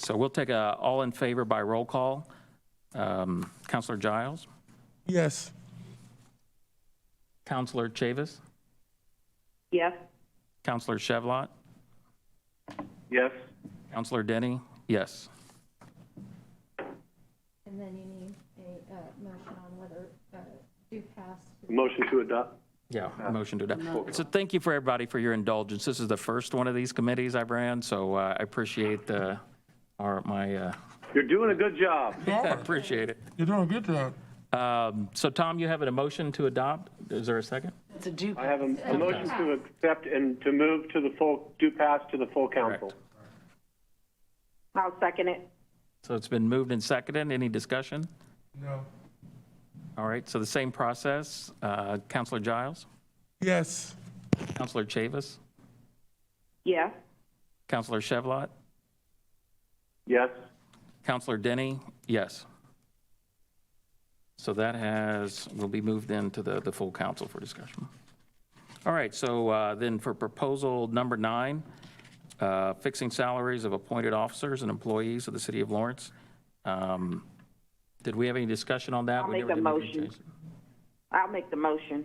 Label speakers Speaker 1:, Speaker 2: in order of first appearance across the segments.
Speaker 1: So we'll take a all in favor by roll call. Um, Counselor Giles,
Speaker 2: Yes.
Speaker 1: Counselor Chavis,
Speaker 3: Yes.
Speaker 1: Counselor Chevlot,
Speaker 4: Yes.
Speaker 1: Counselor Denny, yes.
Speaker 5: And then you need a uh, motion on whether uh, do pass
Speaker 4: Motion to adopt.
Speaker 1: Yeah, motion to adopt. So thank you for everybody for your indulgence. This is the first one of these committees I've ran, so uh, I appreciate the, our, my, uh,
Speaker 4: You're doing a good job.
Speaker 1: I appreciate it.
Speaker 2: You're doing good job.
Speaker 1: Um, So Tom, you have a motion to adopt? Is there a second?
Speaker 3: It's a do.
Speaker 4: I have a, a motion to accept and to move to the full, do pass to the full council.
Speaker 1: Correct.
Speaker 3: I'll second it.
Speaker 1: So it's been moved and seconded. Any discussion?
Speaker 2: No.
Speaker 1: All right, so the same process. Uh, Counselor Giles,
Speaker 2: Yes.
Speaker 1: Counselor Chavis,
Speaker 3: Yes.
Speaker 1: Counselor Chevlot,
Speaker 4: Yes.
Speaker 1: Counselor Denny, yes. So that has, will be moved into the, the full council for discussion. All right, so uh, then for proposal number nine, uh, fixing salaries of appointed officers and employees of the city of Lawrence. Um, Did we have any discussion on that?
Speaker 3: I'll
Speaker 1: We
Speaker 3: make
Speaker 1: never
Speaker 3: a
Speaker 1: did make any
Speaker 3: motion.
Speaker 1: changes.
Speaker 3: I'll make the motion.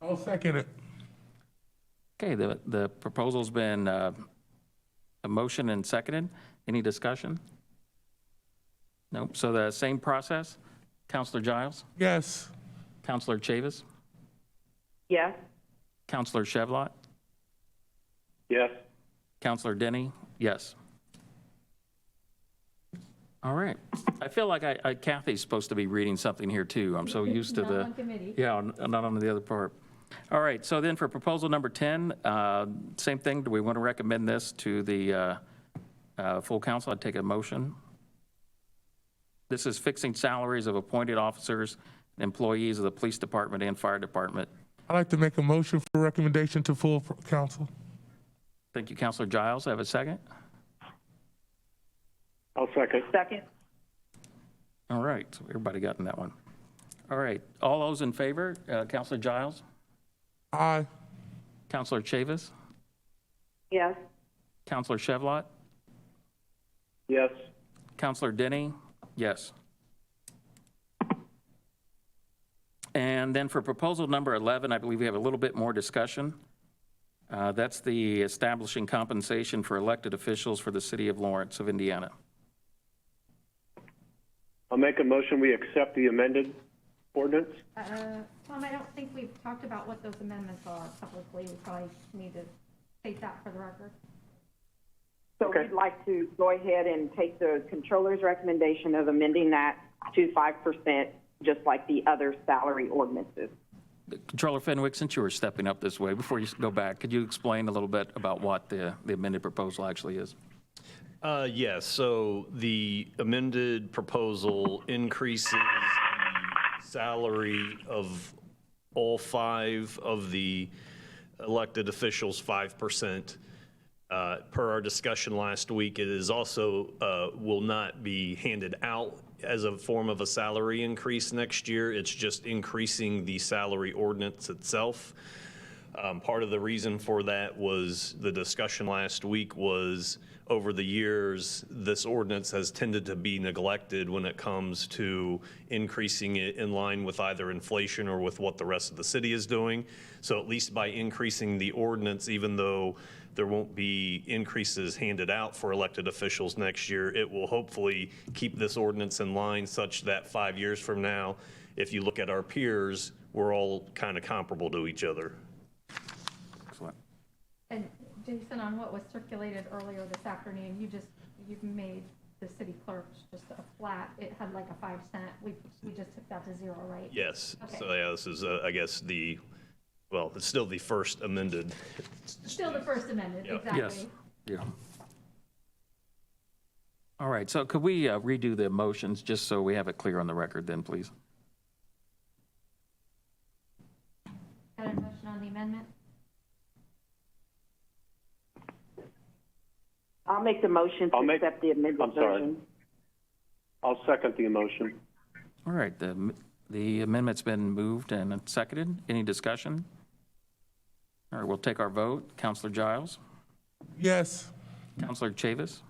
Speaker 2: I'll second it.
Speaker 1: Okay, the, the proposal's been uh, a motion and seconded. Any discussion? Nope, so the same process. Counselor Giles,
Speaker 2: Yes.
Speaker 1: Counselor Chavis,
Speaker 3: Yes.
Speaker 1: Counselor Chevlot,
Speaker 4: Yes.
Speaker 1: Counselor Denny, yes. All right. I feel like I- I- Kathy's supposed to be reading something here, too. I'm so used to
Speaker 5: Not
Speaker 1: the.
Speaker 5: on committee.
Speaker 1: Yeah, on- not on the other part. All right, so then for proposal number 10, uh, same thing, do we want to recommend this to the uh, uh, full council? I'd take a motion. This is fixing salaries of appointed officers, and employees of the police department and fire department.
Speaker 2: I'd like to make a motion for recommendation to full council.
Speaker 1: Thank you, Counselor Giles. Have a second?
Speaker 4: I'll second.
Speaker 3: Second.
Speaker 1: All right, so everybody got in that one. All right, all those in favor, uh, Counselor Giles,
Speaker 2: Aye.
Speaker 1: Counselor Chavis,
Speaker 3: Yes.
Speaker 1: Counselor Chevlot,
Speaker 4: Yes.
Speaker 1: Counselor Denny, yes. And then for proposal number 11, I believe we have a little bit more discussion. Uh, That's the establishing compensation for elected officials for the city of Lawrence of Indiana.
Speaker 4: I'll make a motion, we accept the amended ordinance.
Speaker 5: Uh, Tom, I don't think we've talked about what those amendments are publicly. We probably need to state that for the record.
Speaker 3: So
Speaker 4: Okay.
Speaker 3: we'd like to go ahead and take the controller's recommendation of amending that to 5%, just like the other salary ordinances.
Speaker 1: Controller Fenwick, since you were stepping up this way, before you go back, could you explain a little bit about what the the amended proposal actually is?
Speaker 6: Uh, yes, so the amended proposal increases the salary of all five of the elected officials 5%. Uh, Per our discussion last week, it is also, uh, will not be handed out as a form of a salary increase next year. It's just increasing the salary ordinance itself. Um, Part of the reason for that was the discussion last week was over the years, this ordinance has tended to be neglected when it comes to increasing it in line with either inflation or with what the rest of the city is doing. So at least by increasing the ordinance, even though there won't be increases handed out for elected officials next year, it will hopefully keep this ordinance in line such that five years from now, if you look at our peers, we're all kind of comparable to each other.
Speaker 1: Excellent.
Speaker 5: And Jason, on what was circulated earlier this afternoon, you just, you made the city clerk just a flat, it had like a five cent, we, we just took that to zero, right?
Speaker 6: Yes, so
Speaker 5: Okay.
Speaker 6: yeah, this is, uh, I guess, the, well, it's still the first amended.
Speaker 5: Still the First Amendment,
Speaker 6: Yeah.
Speaker 5: exactly.
Speaker 1: Yes. Yeah. All right, so could we uh, redo the motions, just so we have it clear on the record then, please?
Speaker 5: Got a motion on the amendment?
Speaker 3: I'll make the motion
Speaker 4: I'll
Speaker 3: to
Speaker 4: make-
Speaker 3: accept the amended
Speaker 4: I'm sorry.
Speaker 3: version.
Speaker 4: I'll second the motion.
Speaker 1: All right, the am- the amendment's been moved and seconded. Any discussion? All right, we'll take our vote. Counselor Giles,
Speaker 2: Yes.
Speaker 1: Counselor Chavis,